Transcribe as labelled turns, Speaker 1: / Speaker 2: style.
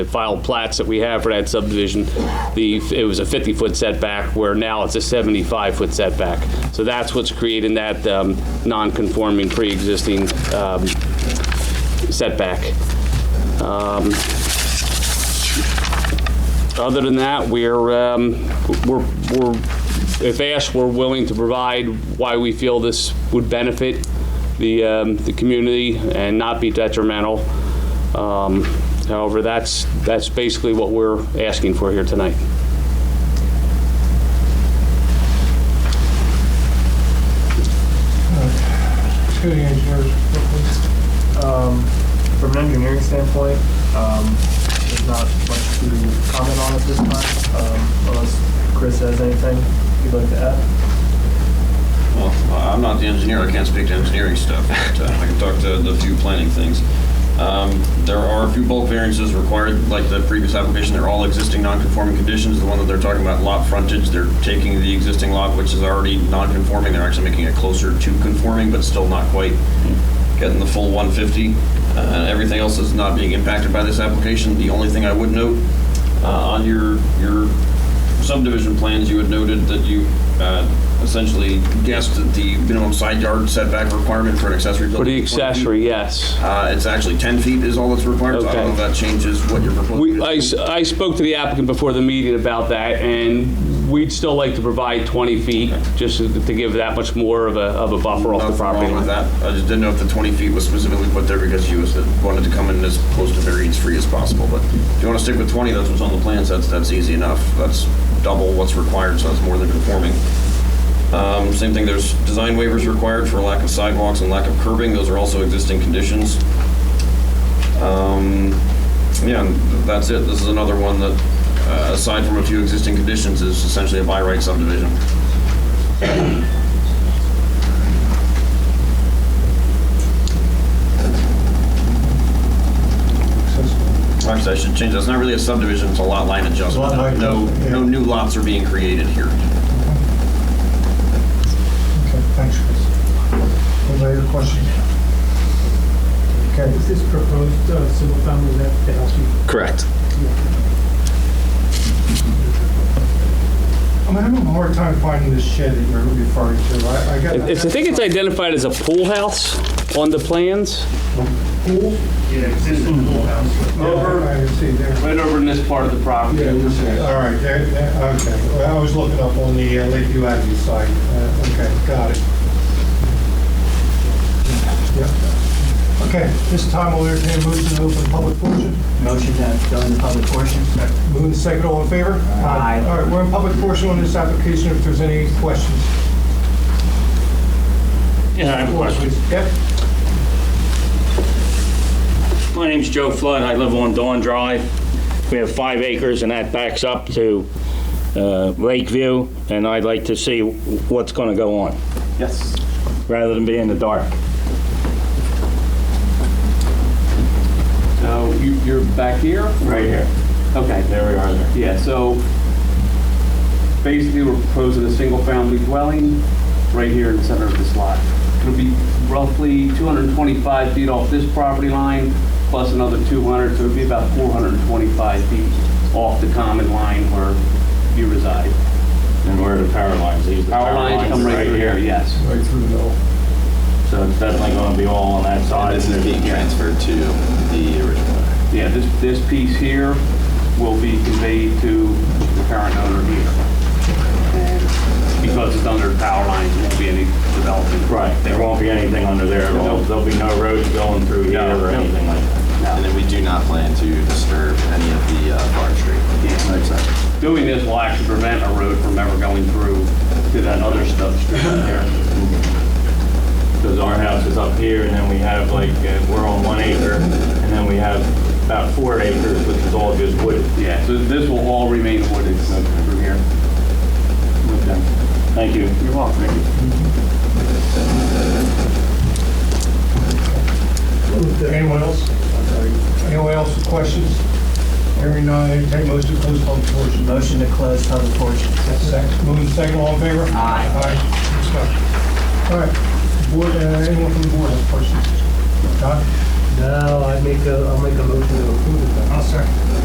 Speaker 1: the filed plats that we have for that subdivision, the, it was a 50-foot setback, where now it's a 75-foot setback. So that's what's creating that um, non-conforming, pre-existing um, setback. Um, Other than that, we're, um, we're, we're- if asked, we're willing to provide why we feel this would benefit the, um, the community and not be detrimental. Um, However, that's, that's basically what we're asking for here tonight.
Speaker 2: To the engineers, um, from an engineering standpoint, um, there's not much to comment on at this time, um, unless Chris has anything you'd like to add.
Speaker 3: Well, I'm not the engineer, I can't speak to engineering stuff, but uh, I can talk to the few planning things. Um, There are a few bulk variances required, like the previous application, they're all existing non-conforming conditions. The one that they're talking about, lot frontage, they're taking the existing lot, which is already non-conforming, they're actually making it closer to conforming, but still not quite getting the full 150. Uh, Everything else is not being impacted by this application. The only thing I would note, uh, on your, your subdivision plans, you had noted that you uh, essentially guessed that the minimum side yard setback requirement for an accessory building.
Speaker 1: For the
Speaker 3: is 20 feet.
Speaker 1: accessory, yes.
Speaker 3: Uh, It's actually 10 feet is all that's required, so I don't know if
Speaker 1: Okay.
Speaker 3: that changes what you're proposing.
Speaker 1: We,
Speaker 3: to
Speaker 1: I,
Speaker 3: do.
Speaker 1: s- I spoke to the applicant before the meeting about that, and we'd still like to provide 20 feet, just to to give that much more of a, of a buffer off the
Speaker 3: Nothing
Speaker 1: property
Speaker 3: wrong with
Speaker 1: line.
Speaker 3: that. I just didn't know if the 20 feet was specifically put there because you was- wanted to come in as close to variance-free as possible, but if you want to stick with 20, that's what's on the plans, that's, that's easy enough. That's double what's required, so that's more than conforming. Um, Same thing, there's design waivers required for lack of sidewalks and lack of curbing, those are also existing conditions. Um, Yeah, and that's it, this is another one that, uh, aside from a few existing conditions, is essentially a by right subdivision. Actually, I should change, that. It's not really a subdivision, it's a lot line adjustment.
Speaker 2: Lot line
Speaker 3: No,
Speaker 2: adjustment, yeah.
Speaker 3: no new lots are being created here.
Speaker 2: Okay, thanks, Chris. Any other questions? Okay,
Speaker 4: Is this proposed uh, single family that the house you-
Speaker 5: Correct.
Speaker 2: I'm having a hard time finding this shed that you're referring to. I, I got.
Speaker 1: It- it's- I think it's identified as a pool house on the plans.
Speaker 2: Pool?
Speaker 6: Yeah, existing pool house. Over,
Speaker 2: I see there.
Speaker 1: Right over in this part of the property.
Speaker 2: Yeah, this is- all right, that- that- okay. Well, I was looking up on the uh, Lakeview Avenue site. Uh, Okay, got it. Yep. Okay, this time we'll entertain a motion to open public portion.
Speaker 7: Motion to go into public portion?
Speaker 2: Move in second, all in favor?
Speaker 7: Aye.
Speaker 2: All right, we're in public portion on this application if there's any questions.
Speaker 6: Yeah, I have a question.
Speaker 2: Yep,
Speaker 6: My name's Joe Flood, I live on Dawn Drive. We have five acres and that backs up to uh, Lakeview, and I'd like to see what's gonna go on,
Speaker 3: Yes.
Speaker 6: rather than be in the dark.
Speaker 8: So you- you're back here?
Speaker 6: Right here.
Speaker 8: Okay.
Speaker 6: There we are there.
Speaker 8: Yeah, so basically, we're proposing a single-family dwelling right here in the center of this lot. It'll be roughly 225 feet off this property line, plus another 200, so it'd be about 425 feet off the common line where you reside.
Speaker 6: And where are the power lines? These are the
Speaker 8: Power lines come right through here, yes.
Speaker 2: right through the middle.
Speaker 6: So it's definitely gonna be all on that side.
Speaker 5: This is being transferred to the original.
Speaker 8: Yeah, this, this piece here will be conveyed to the current owner here. And Because it's under power lines, there won't be any development.
Speaker 6: Right, there won't be anything under there at all. There'll be no roads going through here
Speaker 8: No,
Speaker 6: or
Speaker 8: no.
Speaker 6: anything like that.
Speaker 5: And then we do not plan to disturb any of the uh, farm street.
Speaker 8: Doing this will actually prevent a road from ever going through to that other stuff street up there.
Speaker 6: Because our house is up here and then we have like, uh, we're on one acre and then we have about four acres, which is all just wooded.
Speaker 8: Yeah, so this will all remain wooded from here.
Speaker 6: Thank you.
Speaker 8: You're welcome.
Speaker 2: Anyone else? Anyone else with questions? Hearing none, entertain motion to close public portion.
Speaker 7: Motion to close public portion?
Speaker 2: Second, moving second, all in favor?
Speaker 7: Aye.
Speaker 2: Aye. Discussion. All right, board, uh, anyone from the board have questions? Don?
Speaker 4: No, I make a, I'll make a motion to approve it.
Speaker 2: I'll second.